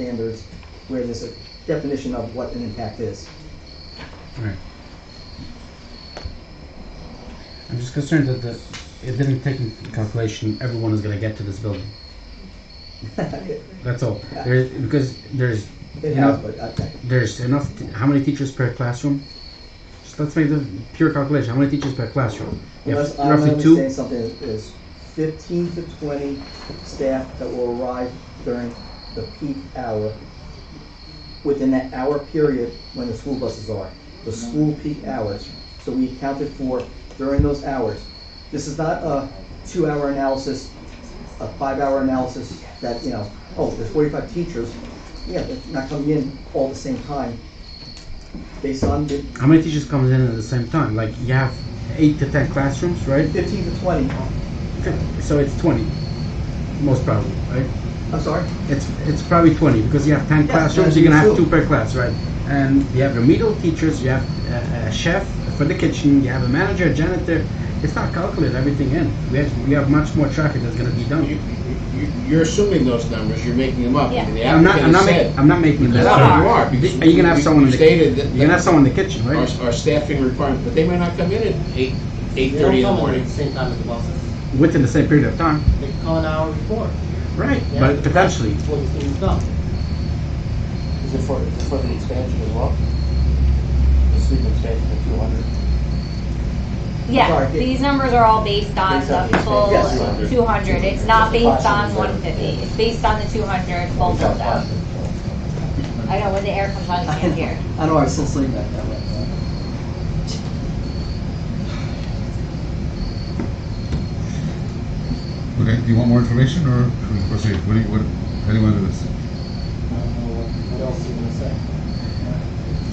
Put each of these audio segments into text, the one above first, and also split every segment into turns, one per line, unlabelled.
standards where there's a definition of what an impact is.
Right. I'm just concerned that the, it didn't take into calculation everyone is going to get to this building.
It
That's all. There, because there's
it
Yeah.
has, but, uh, okay.
there's enough. T- how many teachers per classroom? Just let's make the pure calculation. How many teachers per classroom? You have
Unless uh, I'm
roughly two.
understanding something, is fifteen to twenty staff that will arrive during the peak hour within that hour period when the school buses are, the
Mm-hmm.
school peak hours. So we accounted for during those hours. This is not a two-hour analysis, a five-hour analysis that, you know, oh, there's forty-five teachers. Yeah, they're not coming in all at the same time. Based on the
How many teachers comes in at the same time? Like you have eight to ten classrooms, right?
fifteen to twenty,
So it's twenty, most probably, right?
I'm sorry?
It's it's probably 20 because you have 10
Yeah,
classrooms.
yeah,
You're gonna
you
have
do.
two per class, right? And you have remedial teachers. You have uh, a, a chef for the kitchen. You have a manager, a janitor. It's not calculated everything in. We have we have much more traffic that's gonna be
You-
done.
you- You're assuming those numbers, you're making them up.
Yeah.
The
I'm not I'm
applicant
not,
has
making
said.
I'm not making that
No,
up.
you are,
Are
because
you gonna have
you-
someone? in
you
the,
stated that-
You're gonna have someone in the kitchen,
Our
right?
our staffing requirement, but they might not come in at eight,
They
eight-thirty in
don't
the
come at
morning.
the same time as the buses.
Within the same period of time,
They come an hour before.
right?
Yeah.
But potentially,
Before the students come. Is it for, is it for the expansion as well? The student expansion of two hundred?
Yeah,
Sorry.
these numbers are all based on
Based on
the
the
full
Yes.
two hundred, it's not based on
Approximately.
one fifty, it's based on the two hundred, both of them. I know, when the air comes on, you can't hear.
I know, I was still sleeping that that way.
Okay, do you want more information or should we proceed? What do you, what, how do you want to do
I
this?
don't know Uh, what, what else you gonna say.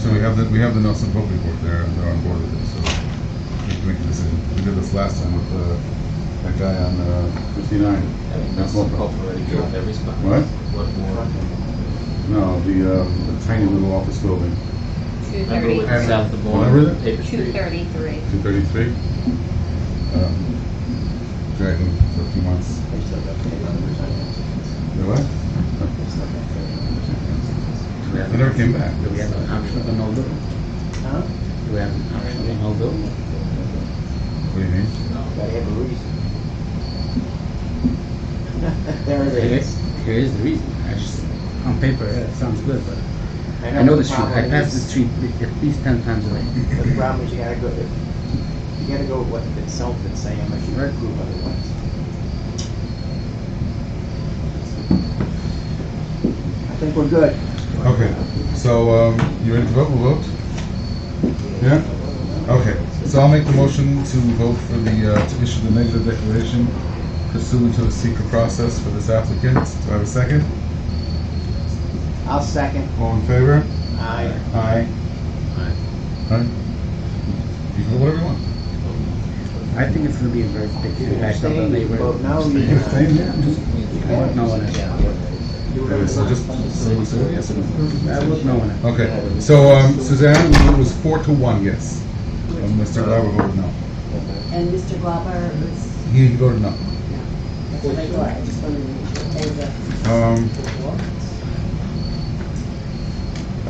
So we have the, we have the Nelson Pope report there, and they're on board with it, so we can make a decision. We did this last time with, uh, that guy on, uh, fifty-nine. Nelson Pope.
already got every spot.
What?
What more?
No, the, uh, the tiny little office building.
Two
Remember
thirty,
when
Thirty.
South the Bourne,
Remember that?
Paper
two
Street?
thirty-three.
Two thirty-three? Um, Dragging for a few months. They what?
Do we have
They never came back.
Do we have an option of an old building?
Huh?
Do we have an option of an old building?
What do you mean?
Gotta have a reason. There it
here
is.
is, here is the reason. I just, on paper, yeah, it sounds good, but I know
the
the street. I
problem
pass the
is-
street at least 10 times a day.
But the problem is you gotta go, you gotta go with what itself is saying, unless you prove otherwise.
I think we're good.
Okay, so, um, you ready to vote? We'll vote? Yeah? Okay, so I'll make the motion to vote for the, uh, to issue the negative declaration pursuant to the secret process for this applicant. Do I have a second?
I'll second.
All in favor?
Aye.
Aye. Aye. Aye? You can vote whatever you want.
I think it's gonna be a very big impact on the
Abstain, you vote
neighborhood.
no,
You
you,
can abstain, yeah, just-
I want no one else.
you
Okay,
were.
so just, so we say yes or no?
I want no one else.
Okay, so, um, Suzanne, it was four to one, yes. And Mr. Glover voted no.
And Mr. Glauber is,
He voted no.
that's what I thought, I just wanted to say that.
Um.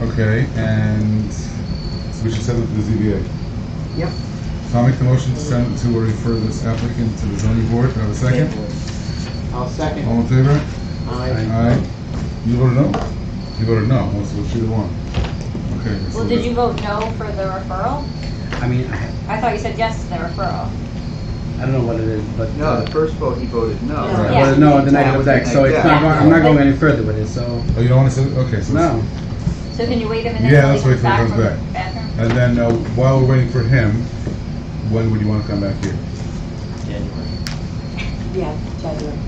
Okay, and so we should send it to the ZBA.
Yep.
So I'll make the motion to send, to refer this applicant to the zoning board. Do I have a second?
I'll second.
All in favor?
Aye.
Aye. You voted no? You voted no, well, so she the one. Okay. so
Well, did
the-
you vote no for the referral?
I mean, I,
I thought you said yes to the referral.
I don't know what it is, but.
No, the first vote he voted no.
No.
Right,
Yeah.
well, no, the negative
was
deck, so it's
Yeah.
not, going- I'm not going any further with it, so,
Oh, you don't want to say, okay, so.
no.
So can you wait a minute
Yeah,
till he
let's wait
comes
till he
back
comes
from the
back.
bathroom?
And then uh, while we're waiting for him, when would you want to come back here?
January.
Yeah, January.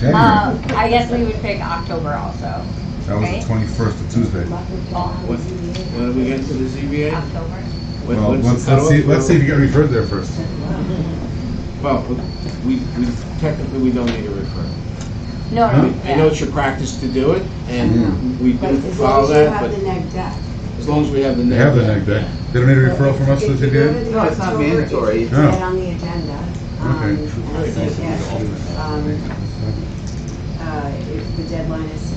January.
Uh, I guess we would pick October also,
That was
okay.
the twenty-first, of Tuesday.
Oh,
When are we getting to the ZBA?
October.
When-
Well,
when's the
let's, let's
cutoff?
see, let's see if you get referred there first.
Well, we, we, technically, we don't need a referral.
No, no,
I know
yeah.
it's your practice to do it, and
Yeah.
we
Right,
do
as long
follow
as you
that,
have the
but
neg deck.
as long as we have the neg.
They have the
deck,
neg deck.
yeah.
They don't need a referral from us to the
If you go to
ZBA?
the
No, it's not
October,
mandatory.
It's
No.
not on the agenda. Um,
Okay.
and I think, yes, um, uh, if the deadline is